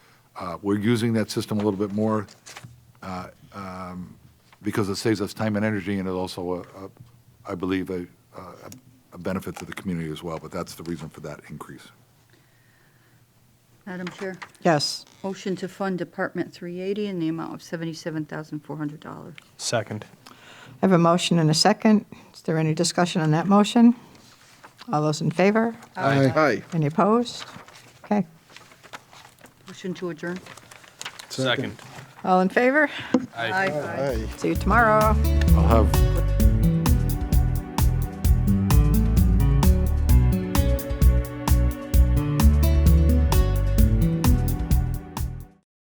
Uh, We're using that system a little bit more uh, um, because it saves us time and energy, and it also, uh, uh, I believe, a- a a benefit to the community as well, but that's the reason for that increase. Madam Chair, Yes. motion to fund Department 380 in the amount of $77,400. Second. I have a motion and a second. Is there any discussion on that motion? All those in favor? Aye. Any opposed? Okay. Motion to adjourn. Second. All in favor? Aye. Aye. See you tomorrow. I'll have